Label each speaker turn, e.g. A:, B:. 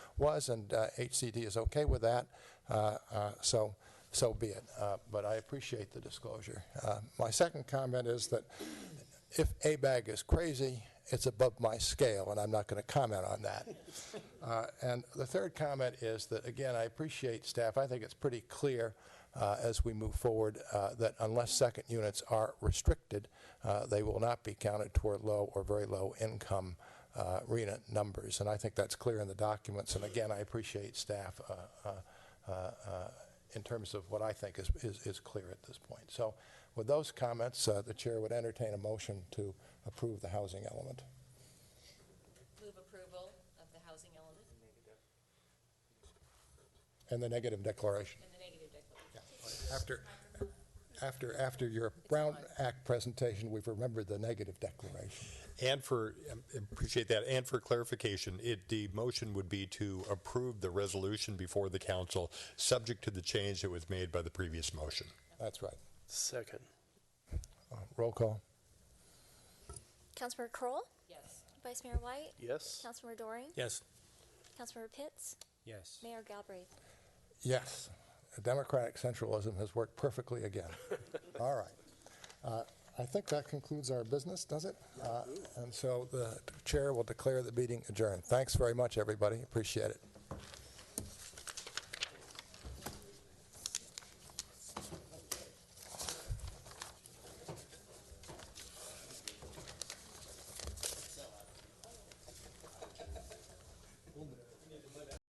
A: was, and uh, HCD is okay with that, Uh, uh, so, so be it. Uh, But I appreciate the disclosure. Uh, My second comment is that if ABAG is crazy, it's above my scale, and I'm not going to comment on that. Uh, And the third comment is that, again, I appreciate staff, I think it's pretty clear uh, as we move forward uh, that unless second units are restricted, uh, they will not be counted toward low or very low income uh, RENA numbers. And I think that's clear in the documents, and again, I appreciate staff uh, uh, uh, in terms of what I think is, is, is clear at this point. So with those comments, uh, the chair would entertain a motion to approve the housing element.
B: Move approval of the housing element
A: And the negative declaration.
B: and the negative declaration.
A: After, after, after your Brown Act presentation, we've remembered the negative declaration.
C: And for, um, appreciate that, and for clarification, it, the motion would be to approve the resolution before the council, subject to the change that was made by the previous motion.
A: That's right.
D: Second.
A: Uh, Roll call.
E: Councilmember Kroll,
B: Yes.
E: Vice Mayor White,
D: Yes.
E: Councilmember Doring,
D: Yes.
E: Councilmember Pitts,
D: Yes.
E: Mayor Galbraith.
A: Yes, democratic centralism has worked perfectly again. All right. Uh, I think that concludes our business, does it? Uh, And so the chair will declare the meeting adjourned. Thanks very much, everybody. Appreciate it.